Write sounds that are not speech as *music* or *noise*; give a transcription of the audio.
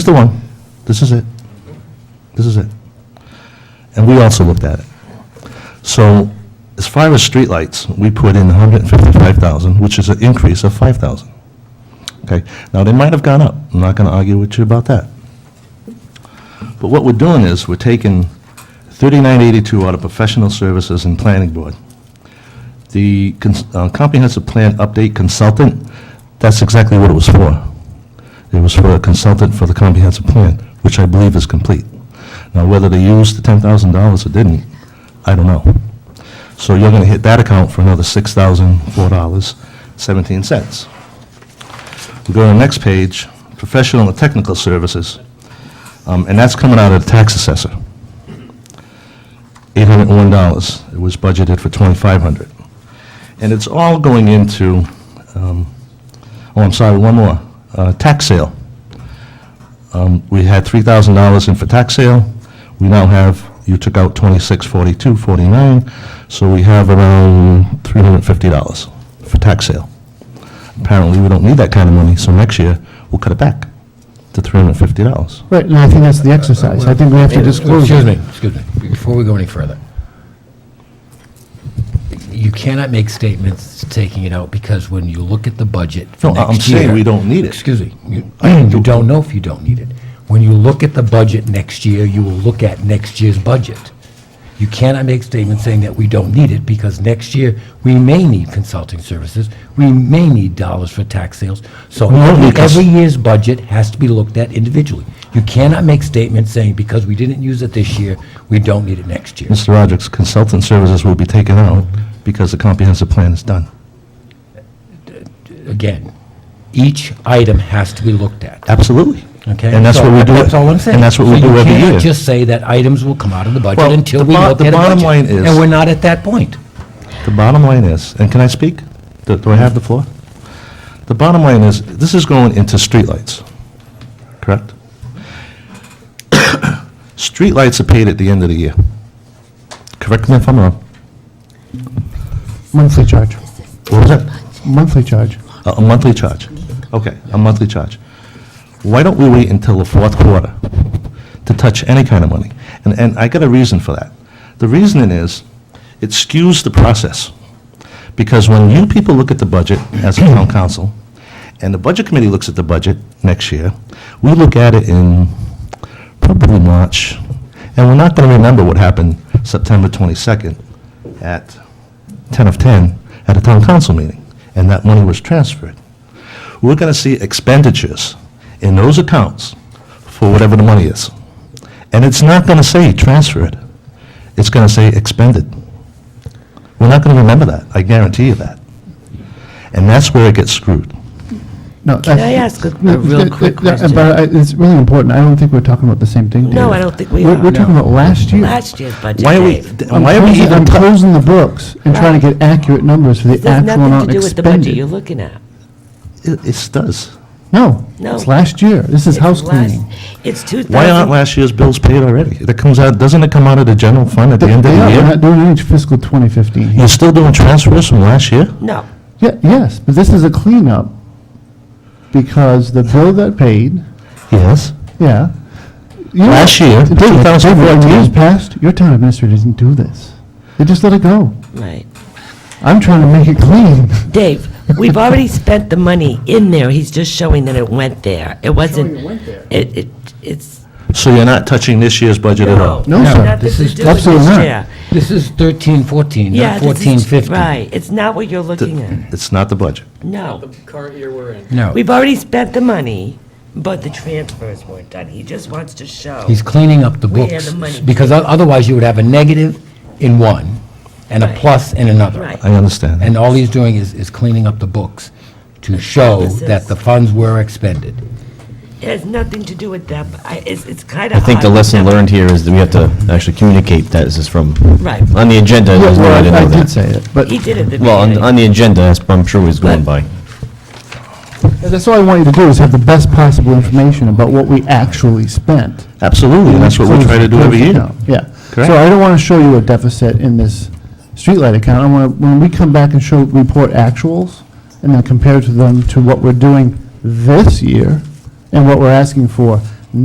is the one. This is it. This is it. And we also looked at it. So as far as streetlights, we put in 155,000, which is an increase of 5,000. Okay? Now, they might have gone up. I'm not going to argue with you about that. But what we're doing is, we're taking 3982 out of professional services and planning board. The cons- uh, comprehensive plan update consultant, that's exactly what it was for. It was for a consultant for the comprehensive plan, which I believe is complete. Now, whether they used the $10,000 or didn't, I don't know. So you're going to hit that account for another $6,004.17. We go to the next page, professional and technical services, um, and that's coming out of the tax assessor. $801. It was budgeted for 2,500. And it's all going into Oh, I'm sorry, one more. Uh, Tax sale. Um, We had $3,000 in for tax sale. We now have, you took out 26, 42, 49, so we have around $350 for tax sale. Apparently, we don't need that kind of money, so next year, we'll cut it back to $350. Right, and I think that's the exercise. I think we have to disclose. Excuse it. me, excuse me, before we go any further. You cannot make statements taking it out, because when you look at the budget No, for I- I'm next saying year- we don't need it. Excuse me, you you don't know if you don't need it. When you look at the budget next year, you will look at next year's budget. You cannot make statements saying that we don't need it, because next year, we may need consulting services, we may need dollars for tax sales, so No, every- because- every year's budget has to be looked at individually. You cannot make statements saying, because we didn't use it this year, we don't need it next year. Mr. Rogers, consultant services will be taken out because the comprehensive plan is done. Again, each item has to be looked at. Absolutely. Okay? And that's So what we do. That's all I'm saying. And that's what we So do every year. you can't just say that items will come out of the budget Well, until the we bo- look the at a budget. bottom line is- And we're not at that point. The bottom line is, and can I speak? Do do I have the floor? The bottom line is, this is going into streetlights, correct? *coughs* Streetlights are paid at the end of the year. Correct me if I'm wrong. Monthly charge, What was that? monthly charge. A a monthly charge? Okay, a monthly charge. Why don't we wait until the fourth quarter to touch any kind of money? And, and I got a reason for that. The reasoning is, it skews the process. Because when you people look at the budget as a town council, and the budget committee looks at the budget next year, we look at it in probably March, and we're not going to remember what happened September 22nd at 10 of 10 at a town council meeting, and that money was transferred. We're going to see expenditures in those accounts for whatever the money is. And it's not going to say transferred. It's going to say expended. We're not going to remember that, I guarantee you that. And that's where it gets screwed. No, Can that's- I ask a No, A real th- th- quick question. But I- it's really important. I don't think we're talking about the same thing. No, Dave. I don't think we We're- We're are. talking about last year. Last year's budget, Why are we, Dave. th- I'm why are we closing- even, I'm ta- closing the books and trying to get accurate numbers for the There's actual nothing amount to do with the budget you're expended. looking at. it it does. No, No. it's last year. This is It's house last- cleaning. It's 2000. Why aren't last year's bills paid already? That comes out, doesn't it come out of the general fund at the They end of the are, we're year? not doing any fiscal 2015 here. You're still doing transfers from last year? No, Yeah, yes, but this is a cleanup because the bill that paid, Yes. yeah. You- Last year, David, David, in years 2014. past, your town administrator didn't do this. They just let it go. right. I'm trying to make it clean. Dave, we've already spent the money in there, he's just showing that it went there. It wasn't. it went there. It, it, it's. So you're not touching this year's budget at all? No, No, sir. Nothing this to is do with absolutely this not. year. This is 13, 14, Yeah, not this 14, is- 15. Right, it's not what you're looking at, It's not the budget. no. current year we're in. No, We've already spent the money, but the transfers weren't done, he just wants to show. he's cleaning up the Where books. the money- Because o- otherwise, you would have a negative in one and a Right. plus in another. Right, I understand. And all he's doing is, is cleaning up the books to show that the funds were expended. it has nothing to do with that, but I, it's, it's kind of. I think the lesson learned here is that we have to actually communicate that this is from, Right. on the agenda, Yeah, there's no way to well, I- know I did that. say it, but He did it at the beginning. Well, on, on the agenda, that's- I'm sure he's going by. that's all I want you to do is have the best possible information about what we actually spent. Absolutely, and that's what we try to do every year. Yeah. Correct. So I don't want to show you a deficit in this streetlight account. I want to, when we come back and show, report actuals, and then compare to them to what we're doing this year and what we're asking for,